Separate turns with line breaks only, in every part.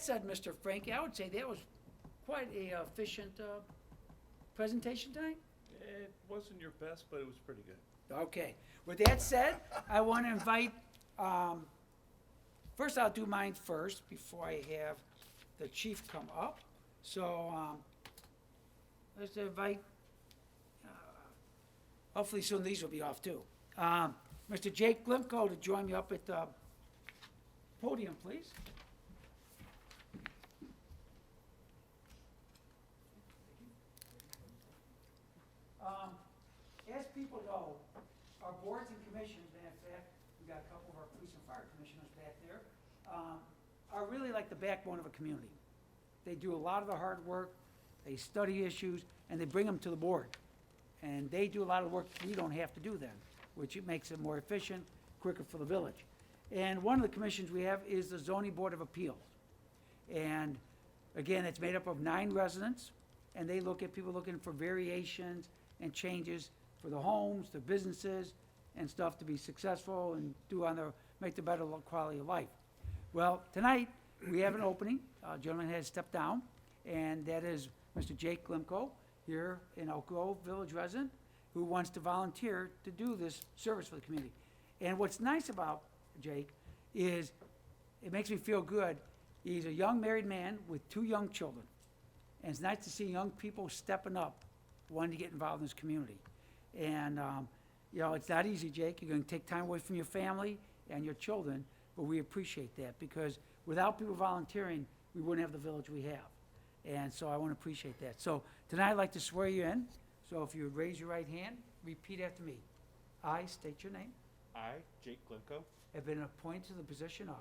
said, Mr. Frankie, I would say that was quite a efficient uh, presentation tonight.
It wasn't your best, but it was pretty good.
Okay, with that said, I want to invite, um, first I'll do mine first before I have the chief come up. So, um, let's invite, uh, hopefully soon these will be off too. Um, Mr. Jake Glimko to join me up at the podium, please. Um, as people know, our boards and commissions, and in fact, we got a couple of our police and fire commissioners back there, um, are really like the backbone of a community. They do a lot of the hard work, they study issues, and they bring them to the board. And they do a lot of work we don't have to do then, which it makes it more efficient, quicker for the village. And one of the commissions we have is the zoning board of appeals. And again, it's made up of nine residents, and they look at, people looking for variations and changes for the homes, the businesses, and stuff to be successful and do on their, make the better lo- quality of life. Well, tonight, we have an opening, a gentleman has stepped down, and that is Mr. Jake Glimko, here in Oak Grove Village resident, who wants to volunteer to do this service for the community. And what's nice about Jake is it makes me feel good. He's a young married man with two young children. And it's nice to see young people stepping up, wanting to get involved in this community. And, um, you know, it's not easy, Jake. You're gonna take time away from your family and your children, but we appreciate that because without people volunteering, we wouldn't have the village we have. And so I wanna appreciate that. So tonight I'd like to swear you in. So if you would raise your right hand, repeat after me. I state your name,
I, Jake Glimko,
have been appointed to the position of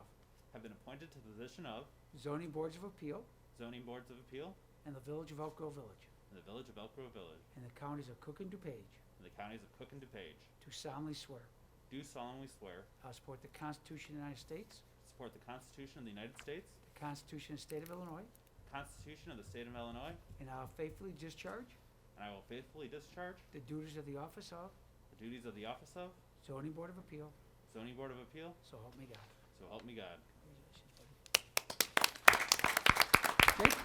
have been appointed to the position of
zoning boards of appeal
Zoning Boards of Appeal
and the Village of Elk Grove Village
in the Village of Elk Grove Village
and the counties of Cook and DuPage
in the counties of Cook and DuPage.
do solemnly swear
Do solemnly swear to
I support the Constitution of the United States,
support the Constitution of the United States,
the Constitution of the State of Illinois,
the Constitution of the State of Illinois,
and I will faithfully discharge
and I will faithfully discharge
the duties of the office of
the duties of the office of
zoning board of appeal,
Zoning Board of Appeal,
so help me God.
so help me God.
Jake,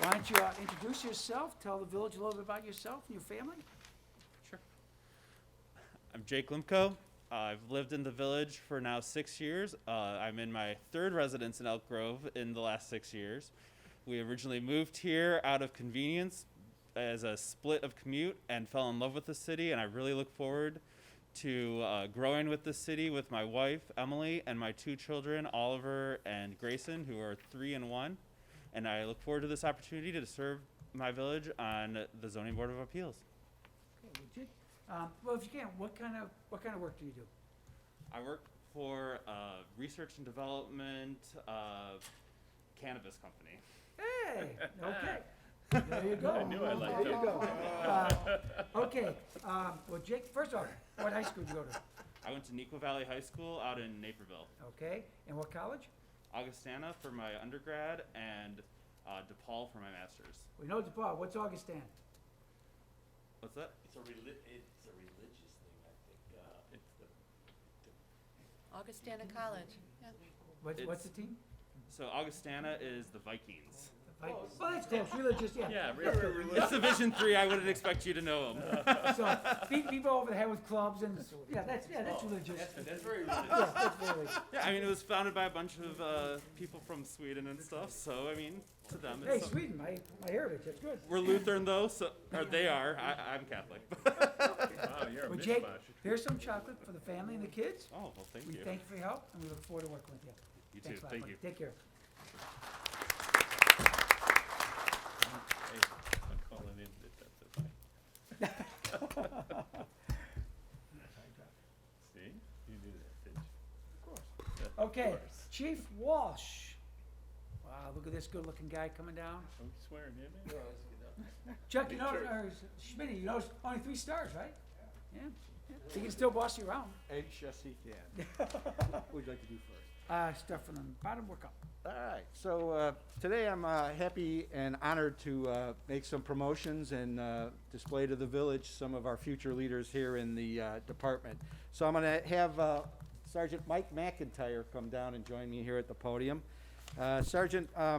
Why don't you uh, introduce yourself, tell the village a little bit about yourself and your family?
Sure. I'm Jake Limko. Uh, I've lived in the village for now six years. Uh, I'm in my third residence in Elk Grove in the last six years. We originally moved here out of convenience as a split of commute and fell in love with the city. And I really look forward to uh, growing with the city with my wife, Emily, and my two children, Oliver and Grayson, who are three and one. And I look forward to this opportunity to serve my village on the Zoning Board of Appeals.
Okay, well, Jake, um, Well, if you can, what kind of, what kind of work do you do?
I work for a research and development uh, cannabis company.
Hey, okay. There you go.
I knew I liked
There you
him.
go. Uh, Okay, um, well, Jake, first off, what high school did you go to?
I went to Nequa Valley High School out in Naperville,
Okay, and what college?
Augustana for my undergrad, and uh, DePaul for my master's.
We know DePaul, what's Augustana?
What's that?
It's a reli- it's a religious thing, I think. Uh, it's the
Augustana College, yeah.
What's, what's the
It's-
team?
So Augustana is the Vikings.
Like- Well, that's close, religious, yeah.
it's Division Three. I wouldn't expect you to know them.
So, beat people over the head with clubs and, yeah, that's, yeah, that's religious.
that's very
Yeah,
religious.
that's very religious.
yeah, I mean it was founded by a bunch of uh, people from Sweden and stuff. So I mean, to them,
Hey,
it's some-
Sweden, my, my heritage, that's good.
we're Lutheran though, so or they are. I, I'm Catholic.
Wow, you're a
Well, Jake,
mishmash.
here's some chocolate for the family and the kids.
oh well, thank
We
you.
thank you for your help, and we look forward to working with you.
You
Thanks a
too.
lot,
Thank
buddy.
you.
Take care.
Hey, I'm calling in to testify. See, you knew that, didn't you?
Okay,
course.
Chief Walsh. Wow, look at this good-looking guy coming down.
Don't be swearing, in there.
No, it's good.
Chuck, you
Big
know,
church.
or Schmitty, you know, it's only three stars, right? Yeah. yeah. He can still boss you around.
Anxious he can. What would you like to do first?
Uh, stuff from the bottom, work up.
All right, so uh, today I'm uh, happy and honored to uh, make some promotions and uh, display to the village some of our future leaders here in the uh, department. So I'm going to have uh, Sergeant Mike McIntyre come down and join me here at the podium. Uh, Sergeant uh,